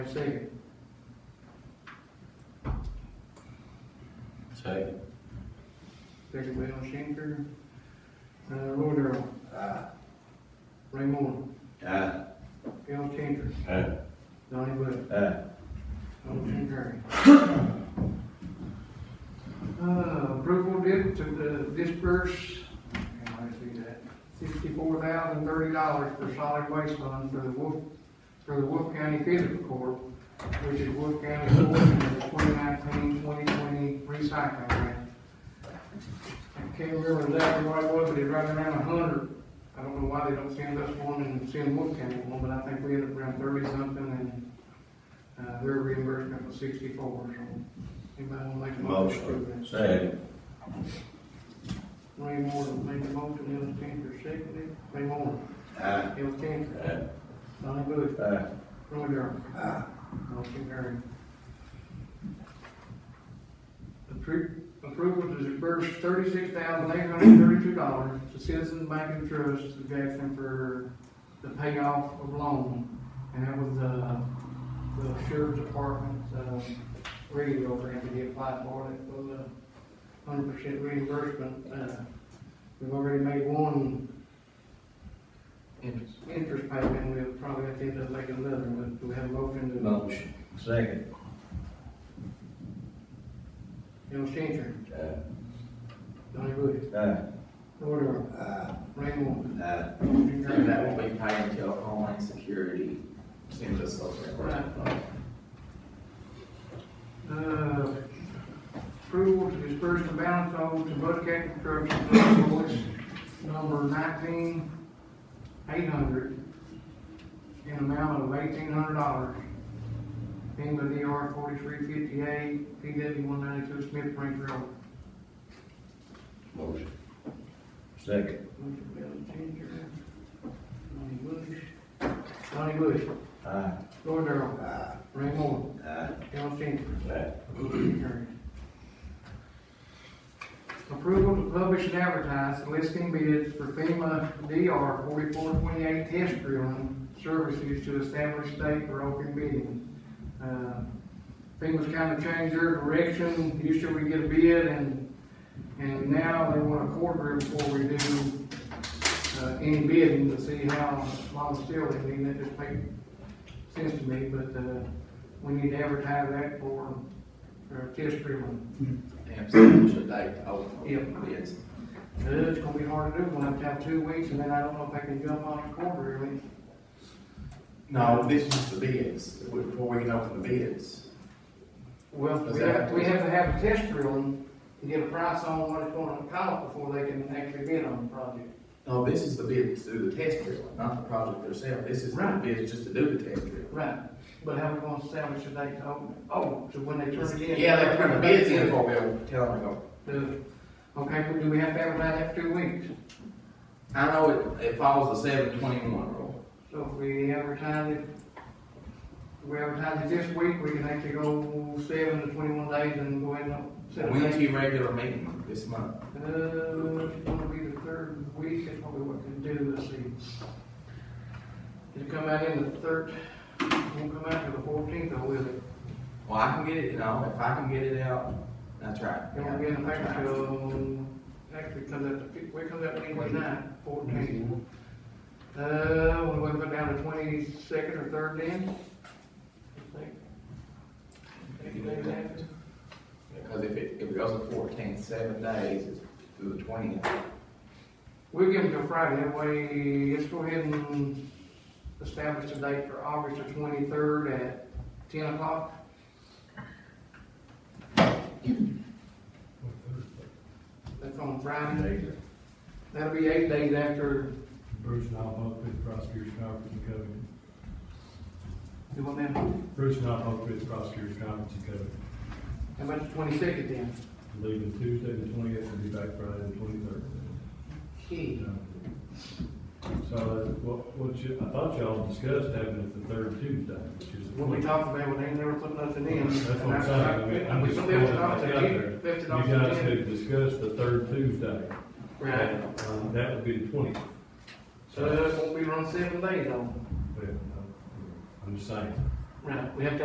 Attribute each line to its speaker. Speaker 1: Second.
Speaker 2: Second.
Speaker 1: Second by Shanker. Uh, Roderl. Ray Moore.
Speaker 2: Aye.
Speaker 1: Al Changer.
Speaker 2: Aye.
Speaker 1: Donnie Bush.
Speaker 2: Aye.
Speaker 1: Motion carried. Uh, approval did to uh, disperse, can I see that? Sixty-four thousand thirty dollars for solid waste fund for the Wolf, for the Wolf County Fiscal Court, which is Wolf County Court in the 2019-2020 recycling grant. I can't remember exactly what it was, but it's right around a hundred. I don't know why they don't send us one and send Wolf County one, but I think we ended up around thirty something and, uh, their reimbursement was sixty-four, so. Anybody wanna make a motion? to approve that?
Speaker 2: Second.
Speaker 1: Ray Moore made the motion, Ellis Cantor seconded it. Ray Moore,
Speaker 2: Aye.
Speaker 1: Ellis Cantor,
Speaker 2: Aye.
Speaker 1: Donnie Bush,
Speaker 2: Aye.
Speaker 1: Roy Darrell. Motion carried. Appro- Approval to disperse thirty-six thousand eight hundred thirty-two dollars to Citizens Bank and Trust of Jackson for the payoff of loan. And that was, uh, the sheriff's department, uh, radio grant that he applied for, that was a hundred percent reimbursement. Uh, We've already made one
Speaker 2: Interest.
Speaker 1: interest payment, we'll probably have to end up making another, but do we have a motion to?
Speaker 2: Motion. Second.
Speaker 1: Bill Changer,
Speaker 2: Aye.
Speaker 1: Donnie Bush,
Speaker 2: Aye.
Speaker 1: Lord Earl,
Speaker 2: Aye.
Speaker 1: Ray Moore.
Speaker 2: Aye.
Speaker 1: Motion
Speaker 3: And that
Speaker 1: carried.
Speaker 3: will be paid until Homeland Security sends us those reimbursements.
Speaker 1: Uh, Approval to disperse the balance owed to Buckhead Construction invoice number nineteen eight hundred in amount of eighteen hundred dollars. FEMA DR forty-three fifty-eight, PW one ninety-two Smith Range Road.
Speaker 2: Motion. Second.
Speaker 1: Motion Bill Changer, Donnie Bush, Donnie Bush,
Speaker 2: Aye.
Speaker 1: Lord Earl,
Speaker 2: Aye.
Speaker 1: Ray Moore.
Speaker 2: Aye.
Speaker 1: Al Changer.
Speaker 2: Aye.
Speaker 1: Approval to publish and advertise listing bids for FEMA DR forty-four twenty-eight test drilling services to establish date for open bidding. Uh, FEMA's kind of changed their direction, usually we get a bid and, and now they want a quarter before we do, uh, any bidding to see how long still they need, that just makes sense to me, but, uh, we need to advertise that for, for test drilling.
Speaker 3: And so should they open
Speaker 1: Yep.
Speaker 3: bids?
Speaker 1: Uh, It's gonna be hard to do, we'll have to have two weeks, and then I don't know if I can jump on it quarterly.
Speaker 3: No, this is the bids, before we can open the bids.
Speaker 1: Well, we have, we have to have a test drilling to get a price on what it's gonna cost before they can actually bid on the project.
Speaker 3: No, this is the bids to do the test drill, not the project itself. This is the
Speaker 1: Right.
Speaker 3: bids just to do the test drill.
Speaker 1: Right, but how we gonna establish a date to open it? Oh, so when they turn it in?
Speaker 3: Yeah, they turn the bids in before we open- tell them to go.
Speaker 1: The- Uh, Okay, well, do we have to advertise that for two weeks?
Speaker 3: I know it, it follows the seven twenty-one rule.
Speaker 1: So if we advertise it, we advertise it this week, we can actually go seven to twenty-one days and go ahead and set a
Speaker 3: When's
Speaker 1: date.
Speaker 3: your regular meeting this month?
Speaker 1: Uh, it's gonna be the third week, that's probably what we can do, let's see. It'll come out in the third, won't come out till the fourteenth, though, will it?
Speaker 3: Well, I can get it, you know, if I can get it out, that's right.
Speaker 1: It won't be in the paper till, actually, it comes out, the fif- where it comes out Wednesday night, fourteenth. Uh, when we put down the twenty-second or third then? I think.
Speaker 3: If you do that. Because if it, if it goes to fourteen, seven days, it's through the twentieth.
Speaker 1: We'll give them till Friday, that way, let's go ahead and establish a date for August the twenty-third at ten o'clock. That's on Friday, that'll be eight days after,
Speaker 4: Bruce and I both with the prosecutor's conference in Covington.
Speaker 1: you want them,
Speaker 4: Bruce and I both with the prosecutor's conference in Covington.
Speaker 1: how about the twenty-second then?
Speaker 4: Leaving Tuesday the twentieth and be back Friday the twenty-third.
Speaker 1: Key.
Speaker 4: So uh, what, what you, I thought y'all discussed having it the third Tuesday, which is the
Speaker 1: What we
Speaker 4: twenty.
Speaker 1: talked about, well, they never put nothing in.
Speaker 4: That's what I'm saying, I mean, I'm
Speaker 1: We
Speaker 4: just
Speaker 1: left
Speaker 4: throwing
Speaker 1: it
Speaker 4: it
Speaker 1: off
Speaker 4: back
Speaker 1: the
Speaker 4: out there.
Speaker 1: key, left
Speaker 4: You
Speaker 1: it off the
Speaker 4: guys
Speaker 1: agenda.
Speaker 4: could discuss the third Tuesday,
Speaker 1: Right,
Speaker 4: um, that would be the twentieth.
Speaker 1: so it won't be around seven days though.
Speaker 4: I'm just saying,
Speaker 1: Right, we have to